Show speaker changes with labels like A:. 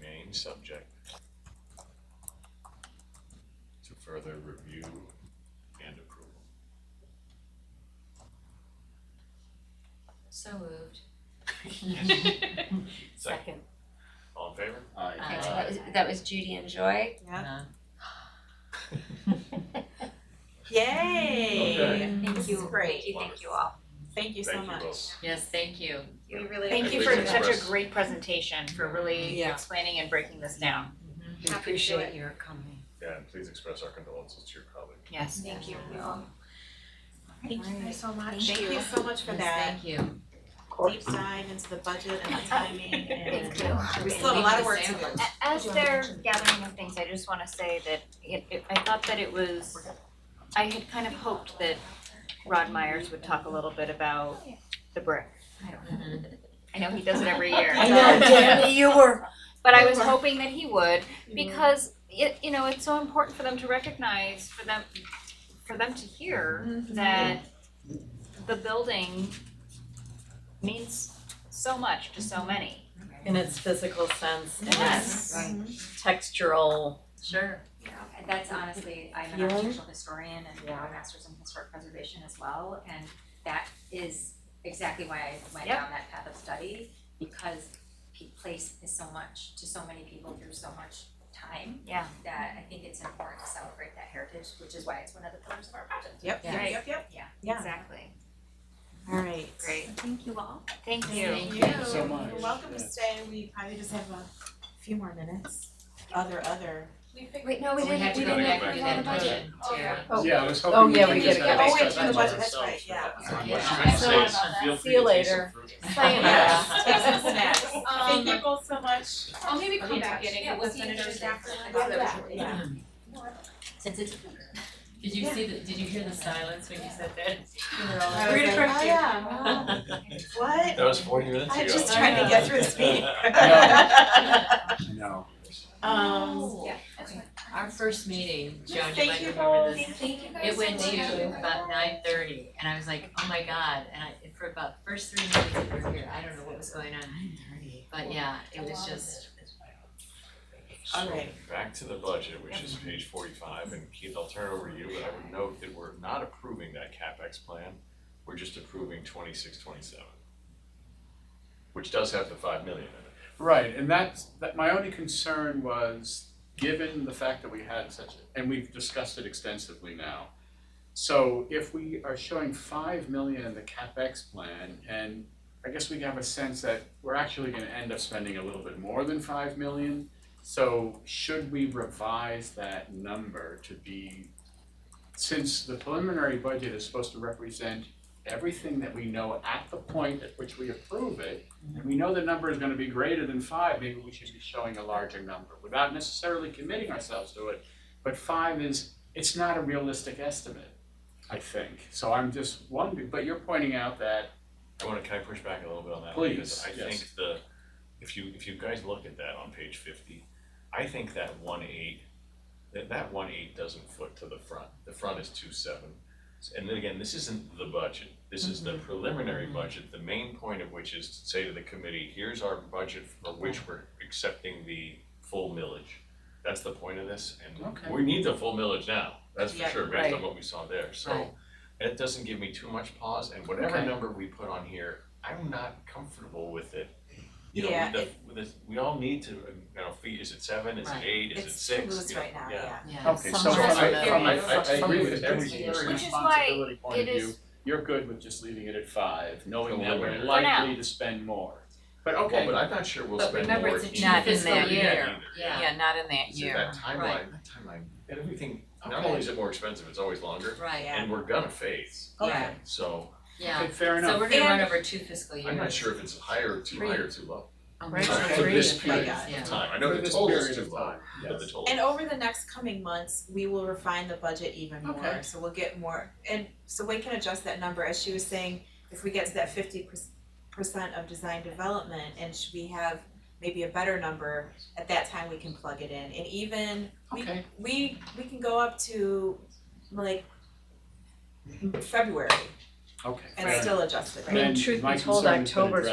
A: being subject to further review and approval.
B: So moved.
C: Second.
A: All in favor?
B: Aye.
C: Okay, so that was, that was Judy and Joy.
B: Yeah.
D: Yay!
A: Okay.
B: Thank
D: This is
B: you.
D: great.
C: Thank you, thank you all.
D: Thank you so
A: Thank you
D: much.
A: both.
B: Yes, thank you.
D: We really
E: Thank you
A: Please
E: for such
A: express.
E: a great presentation, for really
D: Yeah.
E: explaining and breaking this down.
B: We
D: Happy to do
B: appreciate
D: it.
B: your coming.
A: Yeah, and please express our condolences to your colleague.
E: Yes.
D: Thank you.
B: Yeah.
D: Thank you guys so much.
B: Thank
D: Thank
B: you.
D: you so much for
B: Yes,
D: that
B: Thank you.
D: deep dive into the budget and the timing and
E: Thank you.
D: we still have a lot of work to do.
E: A- As they're gathering of things, I just wanna say that it, it, I thought that it was, I had kind of hoped that Rod Myers would talk a little bit about the brick. I don't know. I know he does it every year.
D: I know,
B: damn
E: you were. But I was hoping that he would, because it, you know, it's so important for them to recognize, for them, for them to hear
F: Mm-hmm.
E: that the building means so much to so many.
F: in its physical sense and its
E: Yes.
B: Right.
F: textural.
B: Sure.
C: And that's honestly, I'm an
F: Yeah.
C: architectural historian and I have a master's in historic preservation as well, and that is exactly why I went
E: Yep.
C: down that path of study. Because pe- place is so much to so many people through so much time.
E: Yeah.
C: That I think it's important to celebrate that heritage, which is why it's one of the pillars of our project.
D: Yep,
B: Yeah.
D: yep, yep, yep.
C: Yeah.
D: Yeah.
E: Exactly.
D: Alright.
E: Great.
C: Thank you all.
E: Thank you.
D: Thank you.
B: Thank
G: you so much.
D: You're welcome to stay. We probably just have a few more minutes. Other, other.
B: Wait, no, we
C: We
B: didn't,
C: had
B: we
C: to go
B: didn't
C: back
B: have,
C: to
B: we had a
C: the
B: budget.
D: budget.
B: Yeah.
G: Yeah, I was
F: Oh,
G: hoping we
F: yeah,
G: could
F: we
G: just
F: did
G: have
F: it.
G: a
F: Oh, wait,
G: discussion
F: to the
D: budget,
G: ourselves.
D: that's right, yeah.
G: Sorry,
B: Yeah.
G: what I was
F: I
G: trying to
F: saw
G: say is
F: about
G: feel free
F: that. See you
G: to take some
F: later.
G: fruit.
D: Yeah.
F: Sayonara.
D: Take some snacks. Thank you both so much.
H: I'll maybe come
C: in
H: back
C: touch.
H: in
C: Yeah,
H: and
C: we'll
H: we'll
C: see you
H: finish
C: Thursday.
H: it after.
D: Yeah.
C: Since it's.
B: Did you see the, did you hear the silence when you said that? You were all
D: I
B: like-
D: was
H: Read
D: like,
H: across
D: oh
H: you.
D: yeah, wow. What?
A: That was forty minutes
D: I'm
A: ago.
D: just trying to get through this meeting.
G: I know.
D: Um,
B: Oh, Our first meeting, Joan, you
D: thank
B: might
D: you
B: remember
D: both.
B: this. It went to about nine thirty and I was like, oh my god, and I, for about the first three minutes that we were here, I don't know what was going on. But yeah, it was just,
A: So
D: Alright.
A: back to the budget, which is page forty-five, and Keith, I'll turn it over to you, but I would note that we're not approving that CapEx plan. We're just approving twenty-six, twenty-seven. Which does have the five million in it.
G: Right, and that's, that, my only concern was, given the fact that we had such, and we've discussed it extensively now. So if we are showing five million in the CapEx plan, and I guess we have a sense that we're actually gonna end up spending a little bit more than five million. So should we revise that number to be, since the preliminary budget is supposed to represent everything that we know at the point at which we approve it, and we know the number is gonna be greater than five, maybe we should be showing a larger number without necessarily committing ourselves to it. But five is, it's not a realistic estimate, I think. So I'm just wondering, but you're pointing out that,
A: I wanna, can I push back a little bit on that?
G: Please,
A: Because I
G: yes.
A: think the, if you, if you guys look at that on page fifty, I think that one eight, that, that one eight doesn't foot to the front, the front is two seven. And then again, this isn't the budget, this is the preliminary
G: Mm-hmm.
A: budget, the main point of which is to say to the committee, here's our budget for which we're accepting the full millage. That's the point of this,
G: Okay.
A: and we need the full millage now, that's for
D: Yeah,
A: sure, based on
F: right.
A: what we saw there, so.
F: Right.
A: It doesn't give me too much pause, and whatever
G: Okay.
A: number we put on here, I'm not comfortable with it. You know,
D: Yeah,
A: the- with this- we all need to, uh, you know, feet, is it seven, is it
B: Right.
A: eight, is it
D: It's
A: six?
D: loose
A: You know,
D: right now,
A: yeah.
D: yeah.
B: yeah.
G: okay, so
F: Somewhere
G: from
F: in
G: I, from I,
F: there.
G: I I agree with
F: Which
G: every
F: is why
G: responsibility point of
E: it is-
G: view. You're good with just leaving it at five, knowing that
A: Preliminary.
G: we're
A: For
G: likely to spend more. But okay.
A: Well, but I'm not sure we'll
F: But
A: spend more.
F: remember, it's a
A: in
F: not in
A: fiscal
F: that year.
A: either.
B: Yeah.
F: not in that
A: So that timeline, that timeline, everything, not
G: Okay.
A: only is it more expensive, it's always longer,
B: Right,
A: and we're gonna phase,
B: yeah,
A: so
B: yeah.
G: Okay, fair enough.
B: So we're gonna run
D: And-
B: over two fiscal years. Oh
A: I'm not sure if it's higher or too high or too low
B: Right,
F: Right,
A: Sorry,
G: for
F: three
G: this
F: to
D: I
F: five.
G: period.
D: got it.
B: Yeah.
A: of time, I know
G: For
A: the
G: this
A: total
G: period
A: is
G: of
A: too low,
G: time,
A: but the
G: yes.
A: total.
D: And over the next coming months, we will refine the budget even more.
G: Okay.
D: So we'll get more, and so Wayne can adjust that number, as she was saying, if we get to that fifty percent of design development, and should we have maybe a better number, at that time we can plug it in, and even, we,
G: Okay.
D: we, we can go up to, like, February
G: Okay.
D: and still adjust it.
F: I mean, truth be told, October's